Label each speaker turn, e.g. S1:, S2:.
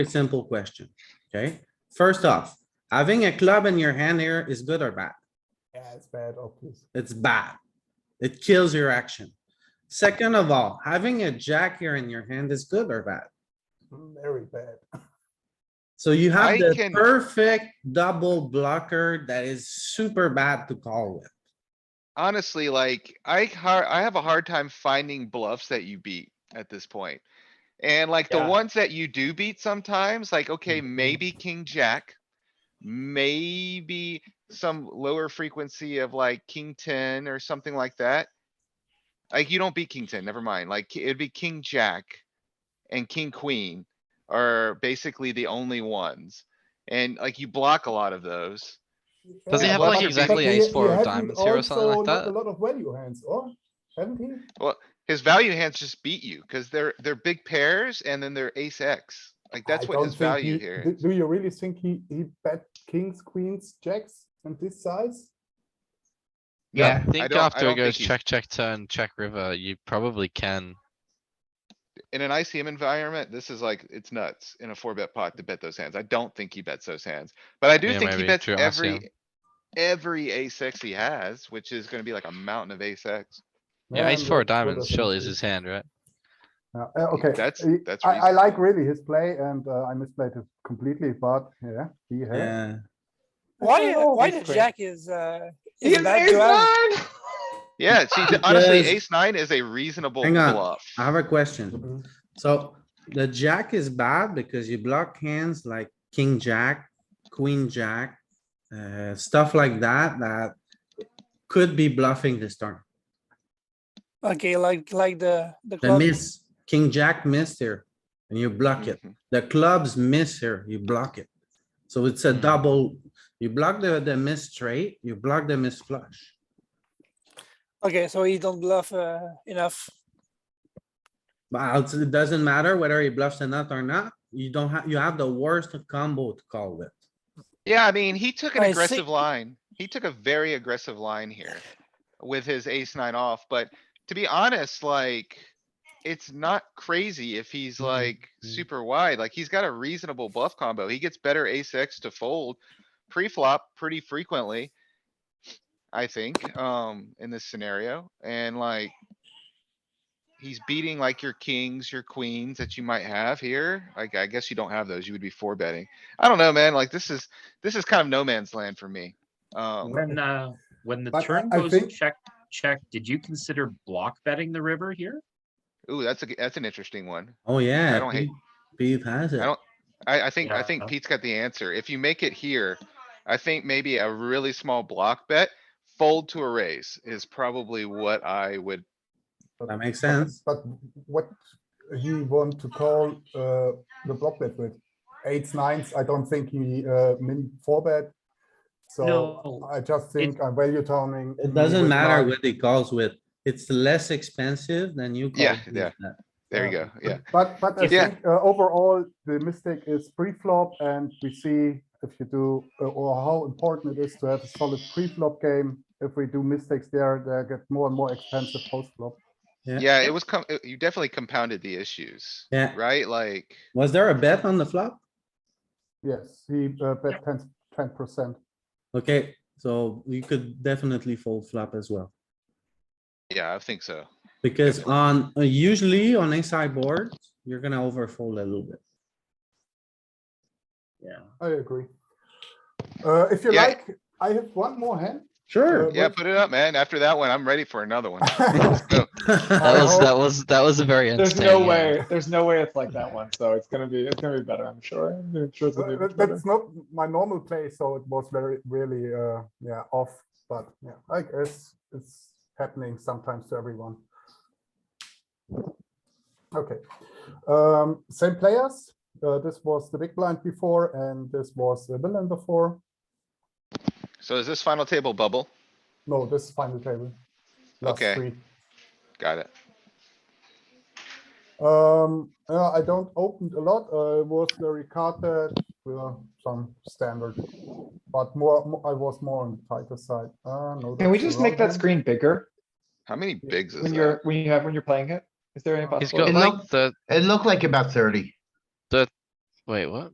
S1: Very simple question, okay? First off, having a club in your hand here is good or bad?
S2: Yeah, it's bad, obvious.
S1: It's bad. It kills your action. Second of all, having a jack here in your hand is good or bad?
S2: Very bad.
S1: So you have
S3: I
S1: the
S3: can-
S1: perfect double blocker that is super bad to call with.
S3: Honestly, like, I har- I have a hard time finding bluffs that you beat at this point. And like the
S4: Yeah.
S3: ones that you do beat sometimes, like, okay, maybe king jack. Maybe some lower frequency of like king ten or something like that. Like you don't beat king ten, never mind. Like it'd be king jack. And king queen are basically the only ones. And like you block a lot of those.
S4: Does he
S3: Yeah,
S4: have
S3: well,
S4: like
S3: that's a
S4: exactly
S2: But he-
S4: ace four
S2: he
S4: of
S2: hadn't
S4: diamonds here or something
S2: also
S4: like
S2: not A
S4: that?
S2: lot of value hands, or haven't he?
S3: His value hands just beat you, cuz they're, they're big pairs and then they're ace X. Like that's
S2: I
S3: what
S2: don't
S3: his
S2: think
S3: value
S2: he-
S3: here.
S2: Do
S3: is.
S2: do you really think he, he bet kings, queens, jacks and this size?
S3: Yeah,
S4: I
S3: I
S4: think
S3: don't- I
S4: after
S3: don't
S4: it goes
S3: think he-
S4: check, check, turn, check river, you probably can.
S3: In an ICM environment, this is like, it's nuts in a four bet pot to bet those hands. I don't think he bets those hands, but I do
S4: Yeah,
S3: think he
S4: maybe
S3: bets
S4: true
S3: every.
S4: ICM.
S3: Every ace X he has, which is gonna be like a mountain of ace X.
S4: Yeah, ace
S2: I'm
S4: four
S2: not
S4: of
S2: sure
S4: diamonds
S2: that's
S4: surely is
S2: it.
S4: his hand, right?
S2: Yeah, uh, Okay.
S3: That's-
S2: he-
S3: that's
S2: I, I
S3: reasonable.
S2: like really his play and uh, I misplayed it completely, but yeah, he had.
S1: Yeah,
S5: Why,
S2: Oh,
S5: why
S2: that's
S5: the
S2: great.
S5: jack is, uh, is bad to have?
S3: Yeah, see, th- honestly,
S1: Because-
S3: ace nine is a reasonable
S1: Hang on,
S3: bluff.
S1: I have a question.
S2: Mhm.
S1: So the jack is bad because you block hands like king, jack, queen, jack, uh, stuff like that, that could be bluffing this turn.
S5: Okay, like, like the, the
S1: The
S5: club.
S1: miss, king, jack missed here and you block it.
S3: Mhm.
S1: The clubs miss here, you block it. So it's a
S3: Mm.
S4: Hmm.
S1: double, you block the, the miss straight, you block the miss flush.
S5: Okay, so he don't bluff, uh, enough.
S1: But I'll- it doesn't matter whether he bluffs or not or not, you don't have, you have the worst combo to call with.
S3: Yeah, I mean, he took an
S5: I see.
S3: aggressive line. He took a very aggressive line here with his ace nine off, but to be honest, like, it's not crazy if he's like super wide, like he's got a reasonable bluff combo. He gets better ace X to fold pre-flop pretty frequently. I think, um, in this scenario and like. He's beating like your kings, your queens that you might have here. Like, I guess you don't have those. You would be four betting. I don't know, man. Like, this is, this is kind of no man's land for me. Um,
S6: When, uh, when the
S2: But I-
S6: turn
S2: I
S6: goes
S2: think-
S6: check, check, did you consider block betting the river here?
S3: ooh, that's a, g- that's an interesting one.
S1: Oh, yeah.
S3: I don't hate-
S1: Pete- Pete has it.
S3: don't- I, I think, I think
S6: Yeah.
S3: Pete's got the answer. If you make it here, I think maybe a really small block bet, fold to a raise is probably what I would.
S1: That makes sense.
S2: But what he want to call uh, the block bet with eights, nines, I don't think he uh, min four bet. So
S6: No,
S2: I just think I'm value turning.
S3: Mm.
S1: It doesn't
S2: with
S1: matter
S2: nine.
S1: what he calls with. It's less expensive than you.
S3: Yeah,
S1: call
S3: yeah.
S1: with that.
S3: There you
S2: Yeah.
S3: go. Yeah.
S2: But, but I
S3: Yeah.
S2: think uh, overall, the mistake is pre-flop and we see if you do, uh, or how important it is to have a solid pre-flop game. If we do mistakes there, they get more and more expensive post-flop.
S1: Yeah.
S3: Yeah, it was, com- it- you definitely compounded the issues,
S1: Yeah.
S3: right? Like,
S1: Was there a bet on the flop?
S2: Yes, he uh, bet 10, 10%.
S1: Okay, so you could definitely fold flop as well.
S3: yeah, I think so.
S1: Because on, uh, usually on a sideboard, you're gonna overfold a little bit.
S6: Yeah.
S2: I agree. Uh, if you
S3: Yeah.
S2: like, I have one more hand.
S1: Sure.
S3: Yeah,
S2: but-
S3: put it up, man. After that one, I'm ready for another one. Let's go.
S4: That
S2: I
S4: was,
S2: hope-
S4: that was, that was a very
S7: There's
S4: entertaining.
S7: no
S4: hand.
S7: way. There's no way it's like that one. So it's gonna be. It's gonna be better. I'm sure. I'm sure it's gonna be
S2: Uh,
S7: much better.
S2: That's not my normal play, so it was very, really, uh, yeah, off. But yeah, I guess it's happening sometimes to everyone. Okay, um, same players. Uh, this was the big blind before, and this was the villain before.
S3: So is this final table bubble?
S2: No, this is final table. Last
S3: Okay.
S2: three.
S3: Got it.
S2: Um, uh, I don't opened a lot. Uh, it was very carded with uh, some standard, but more, mo- I was more on the tighter side. Uh, no,
S7: Can we
S2: that's the
S7: just make
S2: wrong
S7: that
S2: hand.
S7: screen bigger
S3: How many
S2: Yeah,
S3: bigs is
S7: when
S3: that?
S7: you're when you have when you're playing it? Is there any
S2: He's
S4: He's
S7: possible?
S4: got
S8: It
S4: like
S8: looked-
S4: the,
S8: It looked like about thirty.
S4: Wait, what?